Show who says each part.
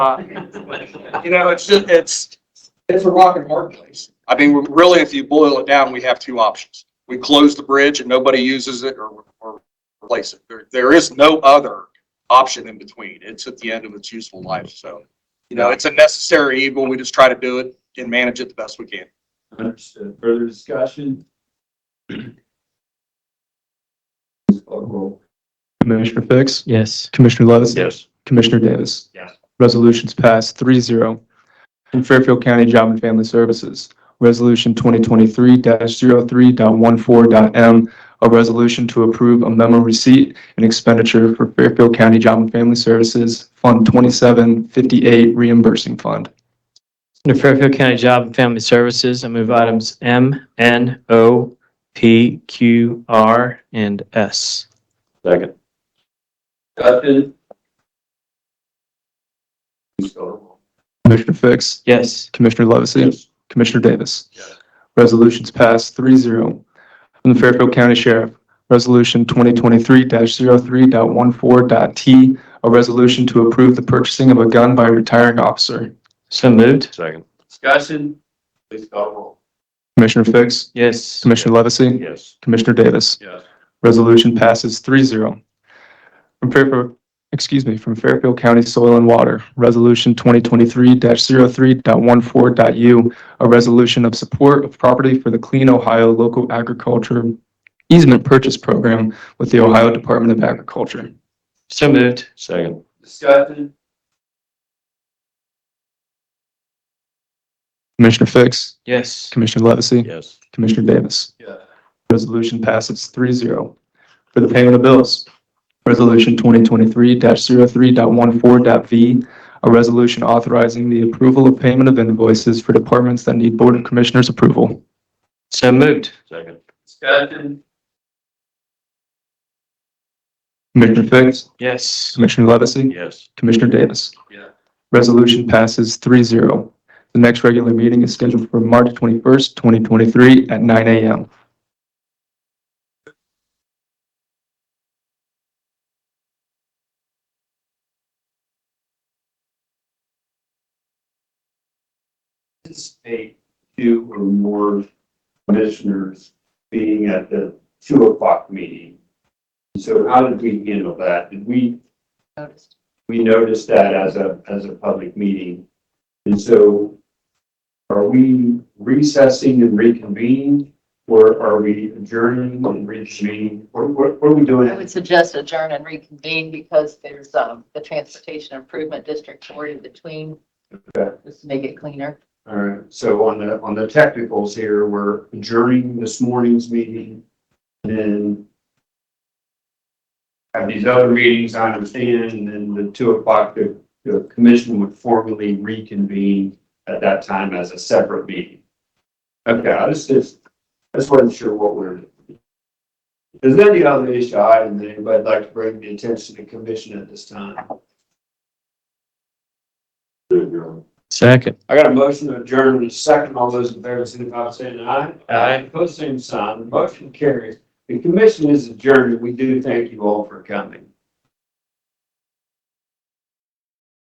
Speaker 1: Uh, You know, it's, just it's, it's a rock and hard place. I mean, really, if you boil it down, we have two options. We close the bridge and nobody uses it or, or replace it. There, there is no other option in between. It's at the end of its useful life, so. You know, it's a necessary evil. We just try to do it and manage it the best we can.
Speaker 2: Understood. Further discussion? Please call the roll.
Speaker 3: Commissioner Fix?
Speaker 4: Yes.
Speaker 3: Commissioner Levis?
Speaker 2: Yes.
Speaker 3: Commissioner Davis?
Speaker 2: Yes.
Speaker 3: Resolutions passed three zero. From Fairfield County Job and Family Services, Resolution 2023-03.14.m, a resolution to approve a memo receipt and expenditure for Fairfield County Job and Family Services Fund 2758 reimbursing fund.
Speaker 4: Under Fairfield County Job and Family Services, I move items M, N, O, P, Q, R, and S.
Speaker 2: Second. Discussion? Please call the roll.
Speaker 3: Commissioner Fix?
Speaker 4: Yes.
Speaker 3: Commissioner Levesey? Commissioner Davis. Resolutions passed 3-0 From the Fairfield County Sheriff, Resolution 2023-03.14.t, a resolution to approve the purchasing of a gun by a retiring officer.
Speaker 4: So moved.
Speaker 2: Second. Discussion? Please call the roll.
Speaker 3: Commissioner Fix?
Speaker 4: Yes.
Speaker 3: Commissioner Levesey?
Speaker 2: Yes.
Speaker 3: Commissioner Davis.
Speaker 2: Yes.
Speaker 3: Resolution passes 3-0 From Fairfield, excuse me, from Fairfield County Soil and Water, Resolution 2023-03.14.u, a resolution of support of property for the Clean Ohio Local Agriculture Easement Purchase Program with the Ohio Department of Agriculture.
Speaker 4: So moved.
Speaker 2: Second. Discussion?
Speaker 3: Commissioner Fix,
Speaker 4: Yes.
Speaker 3: Commissioner Levesey,
Speaker 2: Yes.
Speaker 3: Commissioner Davis.
Speaker 2: Yeah.
Speaker 3: Resolution passes 3-0 For the payment of bills, Resolution 2023-03.14.v, a resolution authorizing the approval of payment of invoices for departments that need Board of Commissioners approval.
Speaker 4: So moved.
Speaker 2: Second. Discussion?
Speaker 3: Commissioner Fix,
Speaker 4: Yes.
Speaker 3: Commissioner Levesey,
Speaker 2: Yes.
Speaker 3: Commissioner Davis.
Speaker 2: Yeah.
Speaker 3: Resolution passes 3-0. The next regular meeting is scheduled for March 21st, 2023 at 9 a.m.
Speaker 2: anticipate two or more commissioners being at the two o'clock meeting. So how did we handle that? Did we? We noticed that as a, as a public meeting. And so are we recessing and reconvening? Or are we adjourning and reconvening? What, what, what are we
Speaker 5: I
Speaker 2: doing?
Speaker 5: would suggest adjourn and reconvene because there's, um, the Transportation Improvement District Board in between.
Speaker 2: Okay.
Speaker 5: Just to make it cleaner.
Speaker 2: All right, so on the, on the technicals here, we're adjourning this morning's meeting and then have these other meetings, I understand, and then the two o'clock, the, the commission would formally reconvene at that time as a separate meeting. Okay, I just, just, I just wasn't sure what we're. Is there any other issue item that anybody'd like to bring to the attention of the commission at this time?
Speaker 4: Second.
Speaker 2: I got a motion to adjourn in a second. All those in favor, signify by saying aye.
Speaker 4: Aye.
Speaker 2: Post same sign. The motion carries. The commission is adjourned. We do thank you all for coming.